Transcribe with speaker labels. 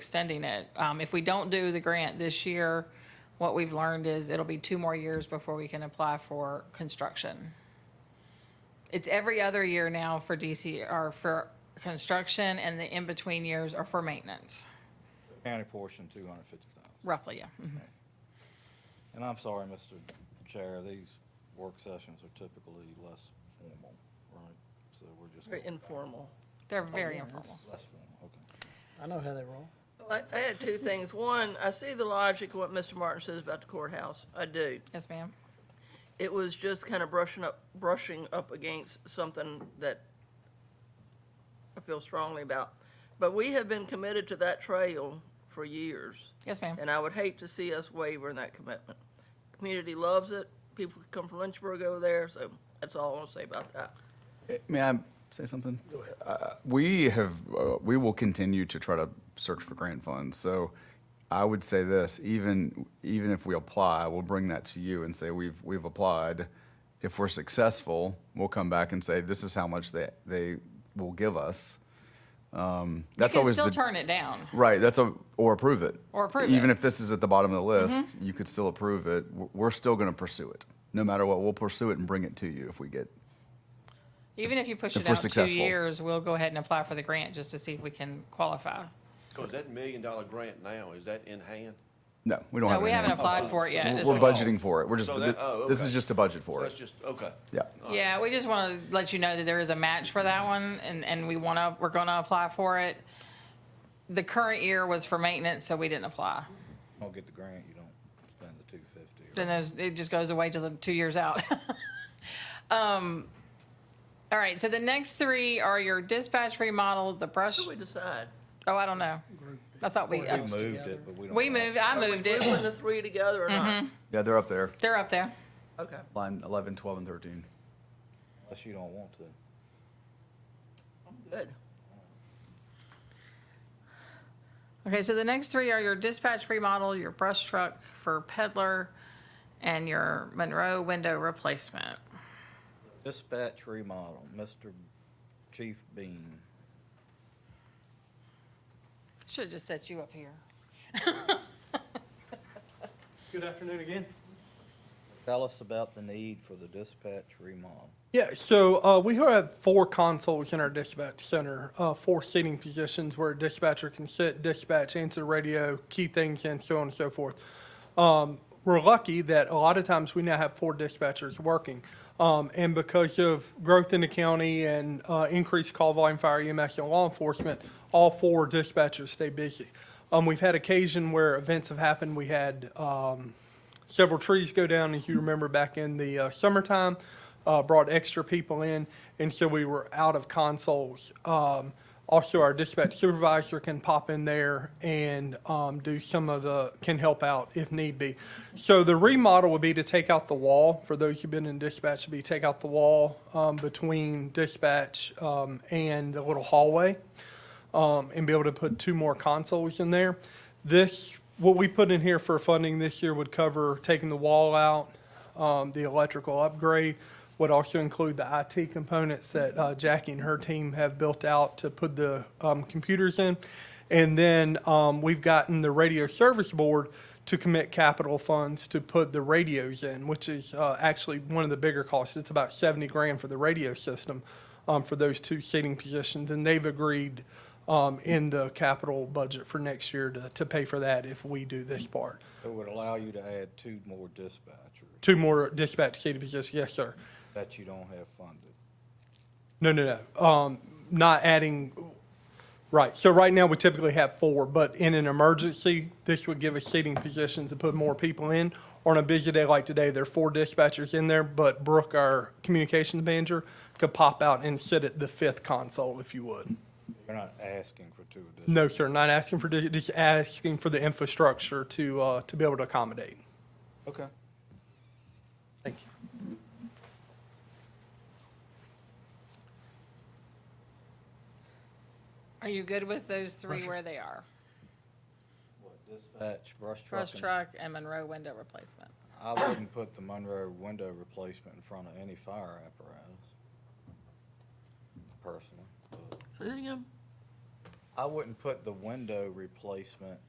Speaker 1: extending it. Um, if we don't do the grant this year, what we've learned is it'll be two more years before we can apply for construction. It's every other year now for DC, or for construction, and the in-between years are for maintenance,
Speaker 2: County portion, two hundred fifty thousand.
Speaker 1: roughly, yeah. Mhm.
Speaker 2: And I'm sorry, Mr. Chair, these work sessions are typically less formal, right? So we're just.
Speaker 3: Very
Speaker 2: going-
Speaker 3: informal.
Speaker 1: They're
Speaker 4: Oh,
Speaker 1: very informal.
Speaker 2: Less formal, okay.
Speaker 5: I know how they roll.
Speaker 3: Well, I- I had two things. One, I see the logic of what Mr. Martin says about the courthouse. I do.
Speaker 1: Yes, ma'am?
Speaker 3: It was just kind of brushing up, brushing up against something that I feel strongly about. But we have been committed to that trail for years,
Speaker 1: Yes, ma'am?
Speaker 3: and I would hate to see us waver in that commitment. Community loves it. People come from Lynchburg over there, so that's all I want to say about that.
Speaker 4: May I say something? Uh, We have, uh, we will continue to try to search for grant funds. So I would say this, even, even if we apply, we'll bring that to you and say, we've, we've applied. If we're successful, we'll come back and say, this is how much they, they will give us. Um, That's
Speaker 1: You can
Speaker 4: always
Speaker 1: still
Speaker 4: the,
Speaker 1: turn it down.
Speaker 4: right, that's a, or approve it.
Speaker 1: Or approve
Speaker 4: Even
Speaker 1: it. Mm-hmm.
Speaker 4: if this is at the bottom of the list, you could still approve it. We're- We're still going to pursue it. No matter what, we'll pursue it and bring it to you if we get
Speaker 1: Even if you push
Speaker 4: If
Speaker 1: it
Speaker 4: we're
Speaker 1: out two
Speaker 4: successful.
Speaker 1: years, we'll go ahead and apply for the grant just to see if we can qualify.
Speaker 6: So is that million dollar grant now, is that in hand?
Speaker 4: No, we don't
Speaker 1: No,
Speaker 4: have it.
Speaker 1: we
Speaker 4: in
Speaker 1: haven't
Speaker 4: hand.
Speaker 1: applied for it yet.
Speaker 4: We're-
Speaker 1: It's
Speaker 4: We're
Speaker 1: like-
Speaker 4: budgeting for it. We're just,
Speaker 6: So that- oh,
Speaker 4: this is
Speaker 6: okay. Oh.
Speaker 4: just a budget for
Speaker 6: That's
Speaker 4: it.
Speaker 6: just, okay.
Speaker 4: Yeah.
Speaker 1: Yeah, we just want to let you know that there is a match for that one, and, and we want to, we're going to apply for it. The current year was for maintenance, so we didn't apply.
Speaker 2: You Don't get the grant, you don't spend the two fifty.
Speaker 1: Then there's, it just goes away to the two years out. Um, All right, so the next three are your dispatch remodel, the brush,
Speaker 3: What do we decide?
Speaker 1: oh, I don't know. I thought we,
Speaker 2: We moved it, but we don't.
Speaker 1: we
Speaker 2: have-
Speaker 1: moved, I moved
Speaker 3: Are we
Speaker 1: it.
Speaker 3: grouping the three together or not?
Speaker 4: Yeah, they're up there,
Speaker 1: They're up there.
Speaker 3: Okay.
Speaker 4: line 11, 12, and 13.
Speaker 2: Unless you don't want to.
Speaker 3: Good.
Speaker 1: Okay, so the next three are your dispatch remodel, your brush truck for peddler, and your Monroe window replacement.
Speaker 2: Dispatch remodel, Mr. Chief Bean.
Speaker 1: Should have just set you up here.
Speaker 7: Good afternoon again.
Speaker 2: Tell us about the need for the dispatch remodel.
Speaker 7: Yeah, so uh, we have four consoles in our dispatch center, uh, four seating positions where a dispatcher can sit, dispatch, answer radio, key things, and so on and so forth. Um, we're lucky that a lot of times we now have four dispatchers working. Um, and because of growth in the county and uh, increased call volume, fire EMS, and law enforcement, all four dispatchers stay busy. Um, we've had occasion where events have happened. We had um, several trees go down, as you remember back in the uh, summertime, uh, brought extra people in, and so we were out of consoles. Um, also, our dispatch supervisor can pop in there and um, do some of the, can help out if need be. So the remodel would be to take out the wall, for those who've been in dispatch, would be take out the wall um, between dispatch um, and the little hallway um, and be able to put two more consoles in there. This, what we put in here for funding this year would cover taking the wall out, um, the electrical upgrade, would also include the IT components that uh, Jackie and her team have built out to put the um, computers in. And then um, we've gotten the radio service board to commit capital funds to put the radios in, which is uh, actually one of the bigger costs. It's about 70 grand for the radio system um, for those two seating positions, and they've agreed um, in the capital budget for next year to, to pay for that if we do this part.
Speaker 2: It would allow you to add two more dispatchers
Speaker 7: Two more dispatch seating positions, yes, sir.
Speaker 2: that you don't have funded.
Speaker 7: No, no, no. Um, not adding, right. So right now, we typically have four, but in an emergency, this would give us seating positions to put more people in. On a busy day like today, there are four dispatchers in there, but Brooke, our communications manager, could pop out and sit at the fifth console if you would.
Speaker 2: You're not asking for two additional.
Speaker 7: No, sir, not asking for, di- just asking for the infrastructure to, uh, to be able to accommodate.
Speaker 2: Okay.
Speaker 7: Thank you.
Speaker 1: Are you good with those three where they are?
Speaker 2: Dispatch, brush truck.
Speaker 1: Brush
Speaker 2: and-
Speaker 1: truck and Monroe window replacement.
Speaker 2: I wouldn't put the Monroe window replacement in front of any fire apparatus, personally.
Speaker 3: Say that again?
Speaker 2: I I wouldn't put the window replacement